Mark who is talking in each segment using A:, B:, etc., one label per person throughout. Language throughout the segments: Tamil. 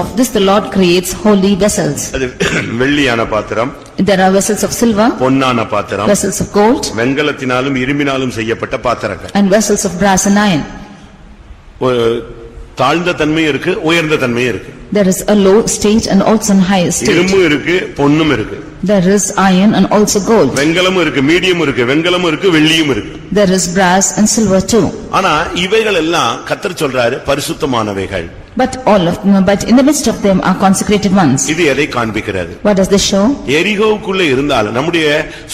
A: Of this the Lord creates holy vessels.
B: அது வெள்ளியான பாத்திரம்
A: There are vessels of silver,
B: பொன்னான பாத்திரம்
A: vessels of gold,
B: வெங்கலத்தினாலும் இரும்பினாலும் செய்யப்பட்ட பாத்திரங்கள்
A: and vessels of brass and iron.
B: ஒரு தாழ்ந்த தன்மையும் இருக்கு உயர்ந்த தன்மையும் இருக்கு
A: There is a low state and also an high state.
B: இரும்பும் இருக்கு பொன்னும் இருக்கு
A: There is iron and also gold.
B: வெங்கலமும் இருக்கு மீடியம் இருக்கு வெங்கலமும் இருக்கு வெள்ளியும் இருக்கு
A: There is brass and silver too.
B: ஆனா இவைகள் எல்லாம் கத்தர் சொல்றாரு பரிசுத்தமானவைகள்
A: But all of them, but in the midst of them are consecrated ones.
B: இது எதை காண்பிக்கிறது
A: What does this show?
B: எரிகோவுக்குள்ள இருந்தாலும் நம்முடைய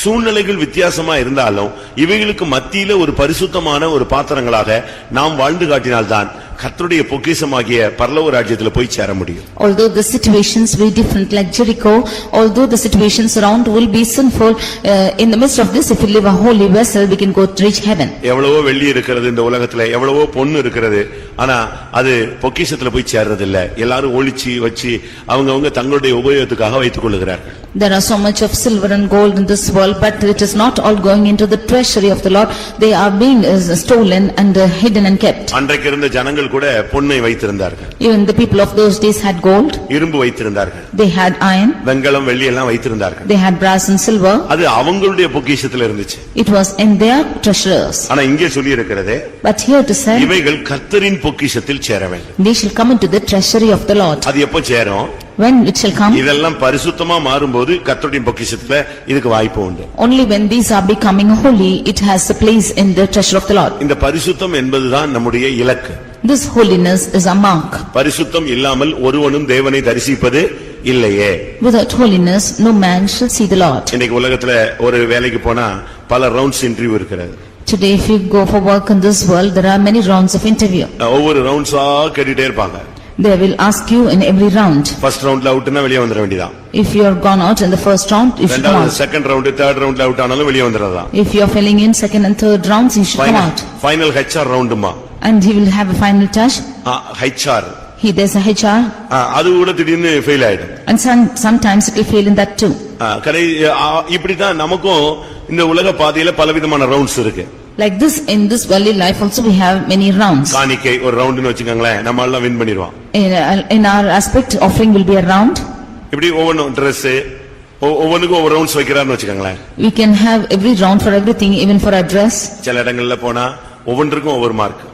B: சூழ்நிலைகள் வித்தியாசமா இருந்தாலும் இவைகளுக்கு மத்தியில ஒரு பரிசுத்தமான ஒரு பாத்திரங்களாக நாம் வாழ்ந்து காட்டினால்தான் கர்த்தருடைய பொக்கிஷமாகிய பரலோக ராஜ்யத்துல போய் சேர முடியும்
A: Although the situations be different like Jericho, although the situations around will be sinful, uh, in the midst of this, if we live a holy vessel, we can go to reach heaven.
B: எவ்வளவோ வெள்ளி இருக்கிறது இந்த உலகத்துல எவ்வளவோ பொண்ணு இருக்கிறது ஆனா அது பொக்கிஷத்துல போய் சேர்றது இல்ல எல்லாரும் ஒளிச்சு வச்சு அவங்கவங்க தங்களுடைய உபயோகத்துக்காக வைத்துக் கொள்ளுகிறார்கள்
A: There are so much of silver and gold in this world, but it is not all going into the treasury of the Lord. They are being uh, stolen and uh, hidden and kept.
B: அன்றைக்கு இருந்த ஜனங்கள் கூட பொன்னை வைத்திருந்தார்கள்
A: Even the people of those days had gold,
B: இரும்பு வைத்திருந்தார்கள்
A: they had iron,
B: வெண்கலம் வெள்ளி எல்லாம் வைத்திருந்தார்கள்
A: they had brass and silver.
B: அது அவங்களுடைய பொக்கிஷத்துல இருந்துச்சு
A: It was in their treasures.
B: ஆனா இங்கே சொல்லி இருக்கிறது
A: But here to say,
B: இவைகள் கர்த்தரின் பொக்கிஷத்தில் சேர வேண்டும்
A: they shall come into the treasury of the Lord.
B: அது எப்ப சேரும்
A: When it shall come?
B: இதெல்லாம் பரிசுத்தமா மாறும்போது கர்த்தருடைய பொக்கிஷத்துல இதுக்கு வாய்ப்பு உண்டு
A: Only when these are becoming holy, it has a place in the treasure of the Lord.
B: இந்த பரிசுத்தம் என்பதுதான் நம்முடைய இலக்கு
A: This holiness is a mark.
B: பரிசுத்தம் இல்லாமல் ஒருவனும் தேவனை தரிசிப்பது இல்லையே
A: Without holiness, no man shall see the Lord.
B: இன்னைக்கு உலகத்துல ஒரு வேலைக்கு போனா பல ரவுண்ட்ஸ் இன்டர்வியூ இருக்கிறது
A: Today, if you go for work in this world, there are many rounds of interview.
B: அஹ் ஒவ்வொரு ரவுண்ட்ஸா கேட்டுட்டே இருப்பாங்க
A: They will ask you in every round.
B: First ரவுண்ட்ல அவுட்னா வெளியே வந்துட வேண்டியதான்
A: If you are gone out in the first round, you should come
B: ரெண்டாவது
A: out.
B: செகண்ட் ரவுண்ட் தேர்ட் ரவுண்ட்ல அவுட் ஆனாலும் வெளியே வந்துடுறதான்
A: If you are filling in second and third rounds, you should come
B: final
A: out.
B: Final HR ரவுண்டுமா
A: And he will have a final touch.
B: HR
A: He, there's a HR
B: அது கூட திடீர்னு ஃபெயில் ஆயிடும்
A: and some, sometimes it will fail in that too.
B: ஆ, கடை ஆ, இப்படித்தான் நமக்கும் இந்த உலக பாதையில பலவிதமான ரவுண்ட்ஸ் இருக்கு
A: Like this, in this worldly life also we have many rounds.
B: காணிக்கை ஒரு ரவுண்டுன்னு வச்சுக்கோங்களேன் நம்ம எல்லாம் வின் பண்ணிடுவோம்
A: In uh, in our aspect, offering will be a round.
B: இப்படி ஒவ்வொன்றும் ட்ரெஸ் ஒவ்வொன்றுக்கும் ஒவ்வொரு ரவுண்ட்ஸ் வைக்கிறான்னு வச்சுக்கோங்களேன்
A: We can have every round for everything, even for our dress.
B: சில இடங்கள்ல போனா ஒவ்வொன்றுக்கும் ஒவ்வொரு mark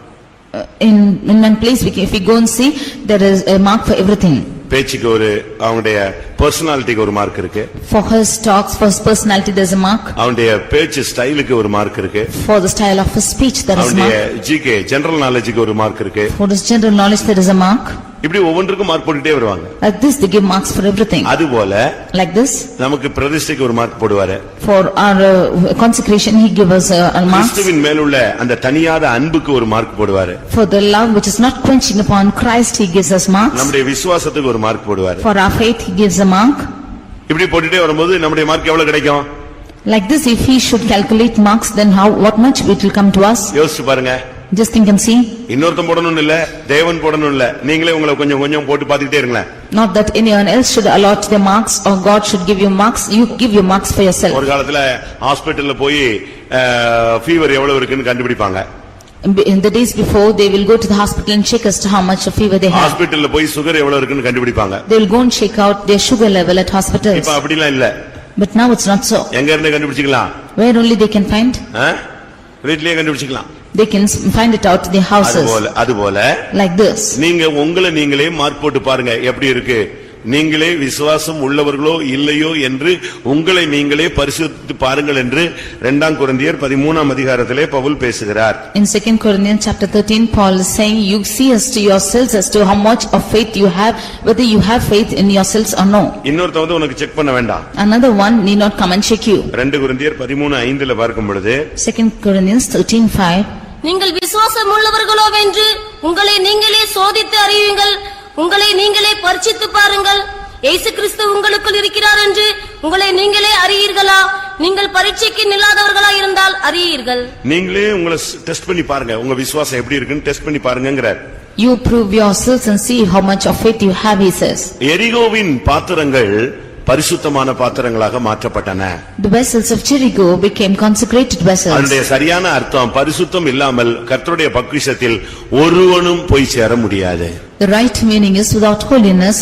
A: Uh, In, in one place, we can- if we go and see, there is a mark for everything.
B: பேச்சுக்கு ஒரு அவனுடைய பர்சனாலிட்டிக்கு ஒரு மார்க் இருக்கு
A: For his talks, for his personality, there's a mark.
B: அவனுடைய பேச்சு ஸ்டைலுக்கு ஒரு மார்க் இருக்கு
A: For the style of his speech, there is a
B: அவனுடைய
A: mark.
B: ஜிகே ஜெனரல் நாலேஜுக்கு ஒரு மார்க் இருக்கு
A: For his general knowledge, there is a mark.
B: இப்படி ஒவ்வொன்றுக்கும் மார்க் போட்டுட்டே வருவாங்க
A: Like this, they give marks for everything.
B: அதுபோல
A: Like this,
B: நமக்கு பிரதிஷ்டைக்கு ஒரு மார்க் போடுவாரு
A: for our uh, consecration, he gives us uh, a mark.
B: கிறிஸ்துவின் மேலுள்ள அந்த தனியாத அன்புக்கு ஒரு மார்க் போடுவாரு
A: For the love which is not quenching upon Christ, he gives us marks.
B: நம்முடைய விசுவாசத்துக்கு ஒரு மார்க் போடுவாரு
A: For our faith, he gives a mark.
B: இப்படி போட்டுட்டே வரும்போது நம்முடைய மார்க் எவ்வளவு கிடைக்கும்
A: Like this, if he should calculate marks, then how, what much it will come to us?
B: யோசிச்சு பாருங்க
A: Just think and see.
B: இன்னொருத்தன் போடணும்னு இல்ல தேவன் போடணும் இல்ல நீங்களே உங்களை கொஞ்சம் கொஞ்சம் போட்டு பாத்துக்கிட்டே இருங்களேன்
A: Not that anyone else should allot their marks or God should give you marks, you give your marks for yourself.
B: ஒரு காலத்துல ஹாஸ்பிடல்ல போய் ஃபீவர் எவ்வளவு இருக்குன்னு கண்டுபிடிப்பாங்க
A: In the days before, they will go to the hospital and check as to how much of fever they have.
B: ஹாஸ்பிடல்ல போய் சுகர் எவ்வளவு இருக்குன்னு கண்டுபிடிப்பாங்க
A: They will go and check out their sugar level at hospitals.
B: இப்ப அப்படிலாம் இல்ல
A: But now it's not so.
B: எங்க இருந்து கண்டுபிடிச்சுக்கலாம்
A: Where only they can find?
B: ஆ? வீட்லயே கண்டுபிடிச்சுக்கலாம்
A: They can s- find it out in their houses.
B: அதுபோல அதுபோல
A: Like this.
B: நீங்க உங்களை நீங்களே மார்க் போட்டு பாருங்க எப்படி இருக்கு நீங்களே விசுவாசம் உள்ளவர்களோ இல்லையோ என்று உங்களை நீங்களே பரிசுத்து பாருங்கள் என்று இரண்டாம் குருந்தியர் பதிமூணாம் அதிகாரத்திலே பவுல் பேசுகிறார்
A: In second Corinthians chapter thirteen, Paul is saying, "You see as to yourselves as to how much of faith you have, whether you have faith in yourselves or no.
B: இன்னொருத்தன் வந்து உனக்கு செக் பண்ண வேண்டாம்
A: Another one need not come and check you."
B: ரெண்டு குருந்தியர் பதிமூணு ஐந்துல பார்க்கும் பொழுது
A: Second Corinthians thirteen five,
C: நீங்கள் விசுவாசம் உள்ளவர்களோவென்று உங்களை நீங்களே சோதித்து அறியுங்கள் உங்களை நீங்களே பரிசித்து பாருங்கள் இயேசு கிறிஸ்து உங்களுக்குள் இருக்கிறார் என்று உங்களை நீங்களே அறியீர்களா நீங்கள் பரீட்சைக்கு நில்லாதவர்களா இருந்தால் அறியீர்கள்
B: நீங்களே உங்களை டெஸ்ட் பண்ணி பாருங்க உங்க விசுவாசம் எப்படி இருக்குன்னு டெஸ்ட் பண்ணி பாருங்கிறார்
A: "You prove yourselves and see how much of faith you have," he says.
B: எரிகோவின் பாத்திரங்கள் பரிசுத்தமான பாத்திரங்களாக மாற்றப்பட்டன
A: The vessels of Jericho became consecrated vessels.
B: அதனுடைய சரியான அர்த்தம் பரிசுத்தம் இல்லாமல் கர்த்தருடைய பக்விஷத்தில் ஒருவனும் போய் சேர முடியாது
A: The right meaning is without holiness,